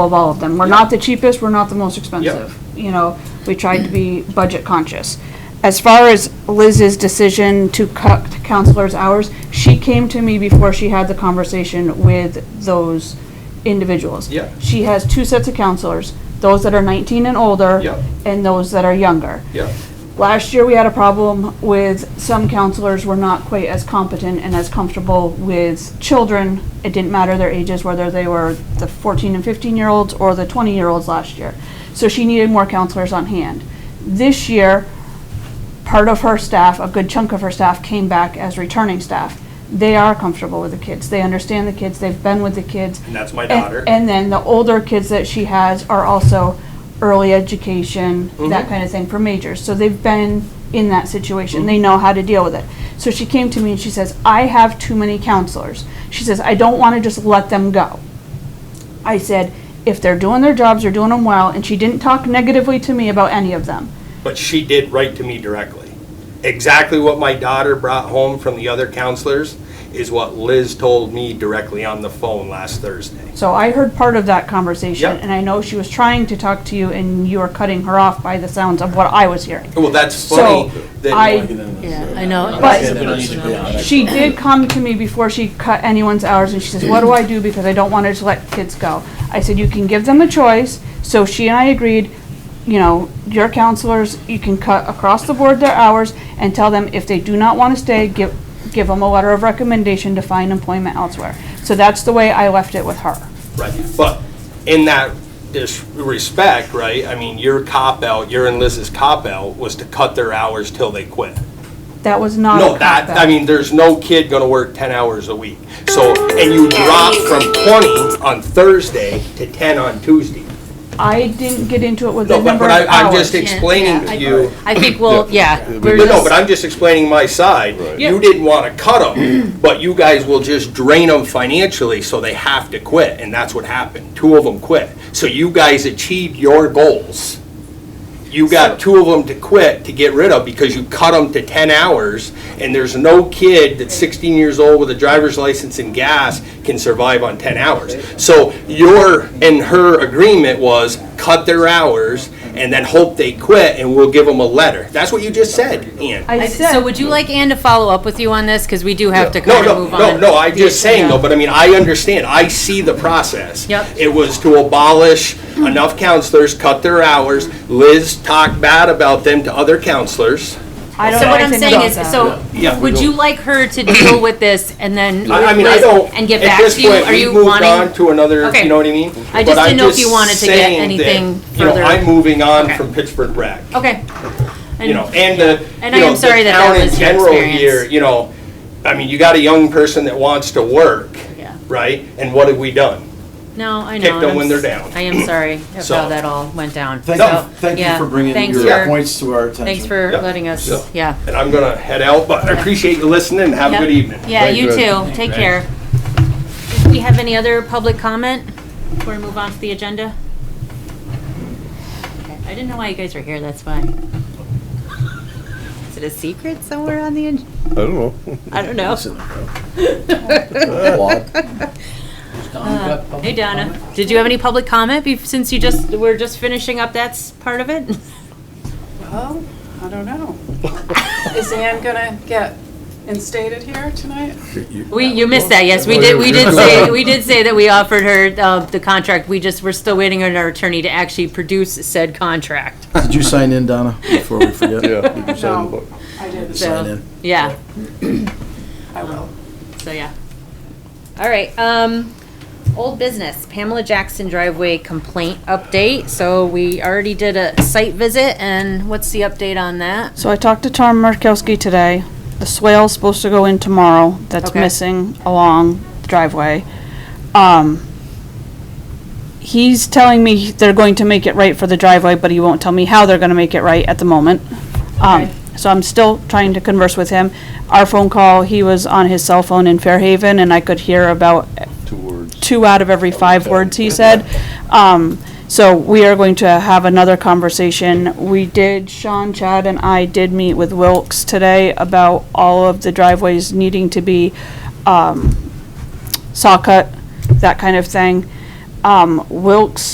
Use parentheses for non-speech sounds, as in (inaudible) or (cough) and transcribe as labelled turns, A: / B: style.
A: of all of them. We're not the cheapest, we're not the most expensive. You know, we tried to be budget conscious. As far as Liz's decision to cut counselors' hours, she came to me before she had the conversation with those individuals.
B: Yeah.
A: She has two sets of counselors, those that are 19 and older.
B: Yeah.
A: And those that are younger.
B: Yeah,
A: Last year, we had a problem with some counselors were not quite as competent and as comfortable with children. It didn't matter their ages, whether they were the 14 and 15-year-olds or the 20-year-olds last year. So she needed more counselors on hand. This year, part of her staff, a good chunk of her staff, came back as returning staff. They are comfortable with the kids. They understand the kids. They've been with the kids.
B: and that's my
A: And-
B: daughter.
A: And then the older kids that she has are also early education, that
B: Mhm.
A: kind of thing for majors. So they've been in that situation.
B: Mm-hmm.
A: They know how to deal with it. So she came to me and she says, I have too many counselors. She says, I don't want to just let them go. I said, if they're doing their jobs, they're doing them well. And she didn't talk negatively to me about any of them.
B: But she did write to me directly. Exactly what my daughter brought home from the other counselors is what Liz told me directly on the phone last Thursday.
A: So I heard part of that conversation.
B: Yep.
A: And I know she was trying to talk to you and you were cutting her off by the sounds of what I was hearing.
B: Well, that's
A: So
B: funny that,
A: I
C: Yeah, I know.
A: But-
C: It's emotional.
A: She did come to me before she cut anyone's hours, and she says, what do I do, because I don't want to just let kids go. I said, you can give them a choice, so she and I agreed, you know, your counselors, you can cut across the board their hours, and tell them if they do not want to stay, give, give them a letter of recommendation to find employment elsewhere. So that's the way I left it with her.
B: right, but in that dis- respect, right, I mean, your cop out, your and Liz's cop out was to cut their hours till they quit.
A: That was not a
B: No, that,
A: cop-out.
B: I mean, there's no kid gonna work ten hours a week. So, and you drop from twenty on Thursday to ten on Tuesday.
A: I didn't get into it with the
B: No, but,
A: number
B: but
A: of
B: I,
A: hours.
B: I'm just explaining
C: Yeah, I-
B: to you.
C: I think, well, yeah, we're
B: No, no, but
C: just,
B: I'm just explaining my side. You didn't want to cut them, but you guys will just drain them financially, so they have to quit, and that's what happened. Two of them quit. So you guys achieved your goals. You got two of them to quit to get rid of because you cut them to ten hours, and there's no kid that's sixteen years old with a driver's license and gas can survive on ten hours. So your and her agreement was cut their hours and then hope they quit, and we'll give them a letter. That's what you just said, Ian.
A: I
C: I-
A: said.
C: so would you like Ann to follow up with you on this? Because we do have to
B: No,
C: kind of
B: no,
C: move on.
B: no, no, I'm just saying though,
A: Yeah.
B: but I mean, I understand, I see the process.
C: Yep.
B: It was to abolish enough counselors, cut their hours, Liz talked bad about them to other counselors.
A: I don't
C: So
A: know
C: what I'm
A: anything
C: saying
A: about
C: is,
A: that.
C: so
B: Yeah.
C: would you like her to deal with this and then
B: I, I mean, I
C: Liz,
B: don't.
C: and get
B: at
C: back
B: this
C: to you?
B: point,
C: Are
B: we've
C: you
B: moved
C: wanting-
B: on To another,
C: Okay.
B: you know what I mean?
C: I
B: But
C: just
B: I'm
C: didn't know if you
B: just
C: wanted to get
B: saying that,
C: anything
B: you know,
C: further.
B: I'm moving on
C: Okay.
B: from Pittsburgh rec.
C: Okay.
B: you know, and the,
C: And
B: you
C: I
B: know,
C: am
B: the
C: sorry that that
B: town in
C: was your
B: general
C: experience.
B: here, you know, I mean, you got a young person that wants to work,
C: Yeah.
B: right? And what have we done?
C: No, I know.
B: Kick
C: and
B: them
C: I'm
B: when they're
C: s-
B: down.
C: I am sorry of
B: So-
C: how that all went down.
D: Thank
C: So,
D: you, thank you
C: yeah,
D: for bringing
C: thanks
D: your
C: for-
D: points to our attention.
C: Thanks for
B: Yep.
C: letting us,
B: So-
C: yeah.
B: And I'm gonna head out, but I appreciate you listening and have a
C: Yep.
B: good evening.
C: Yeah,
E: Thank
C: you
E: you.
C: too. Take care. Do we have any other public comment? Before we move on to the agenda? Okay, I didn't know why you guys were here, that's why. Is it a secret somewhere on the, ag-
E: I don't know.
C: I don't know. Uh, Hey Donna, did you have any public comment bef- since you just, we're just finishing up that s- part of it?
F: Well, I don't
A: (laughs)
F: know. Is Ann gonna get instated here tonight?
C: We, you missed that, yes, we did, Oh, we did say, we did say that we offered her uh, the contract, we just, we're still waiting on our attorney to actually produce said contract.
D: Did you sign in, Donna, before we forget?
E: Yeah. you can sign the
F: No.
E: book.
F: I didn't.
D: Sign
C: So,
D: in.
C: yeah.
F: I will.
C: So, yeah. All right, um, old business, Pamela Jackson driveway complaint update. So we already did a site visit and what's the update on that?
A: So I talked to Tom Murkowski today. The swale's supposed to go in tomorrow. That's
C: Okay.
A: missing along the driveway. Um, he's telling me they're going to make it right for the driveway, but he won't tell me how they're gonna make it right at the moment. Um, so I'm still trying to converse with him. Our phone call, he was on his cell phone in Fairhaven and I could hear about
E: Two words.
A: two out of every five words he said. Um, so we are going to have another conversation. We did, Sean, Chad, and I did meet with Wilkes today about all of the driveways needing to be, um, saw cut, that kind of thing. Um, Wilkes